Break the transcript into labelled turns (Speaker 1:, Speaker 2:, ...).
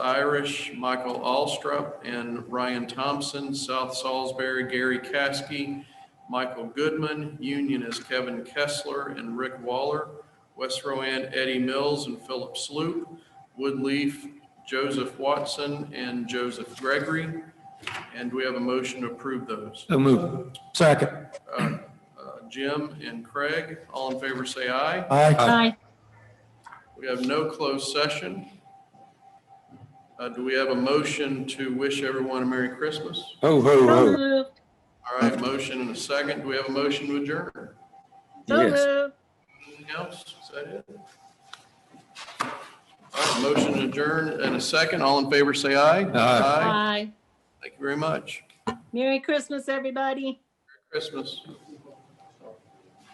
Speaker 1: Irish, Michael Alstrup, and Ryan Thompson. South Salisbury, Gary Caskey, Michael Goodman. Union is Kevin Kessler and Rick Waller. West Rowan, Eddie Mills and Philip Sloop. Woodleaf, Joseph Watson and Joseph Gregory. And we have a motion to approve those.
Speaker 2: So move. Second.
Speaker 1: Uh, uh, Jim and Craig, all in favor, say aye.
Speaker 2: Aye.
Speaker 3: Aye.
Speaker 1: We have no closed session. Uh, Do we have a motion to wish everyone a Merry Christmas?
Speaker 2: Ho, ho,
Speaker 3: So
Speaker 2: ho.
Speaker 3: moved.
Speaker 1: All right, motion and a second. Do we have a motion to adjourn?
Speaker 3: So
Speaker 2: Yes.
Speaker 3: moved.
Speaker 1: Anything else? Is that it? All right, motion to adjourn and a second. All in favor, say aye.
Speaker 2: Aye.
Speaker 3: Aye.
Speaker 1: Thank you very much.
Speaker 3: Merry Christmas, everybody.
Speaker 1: Christmas.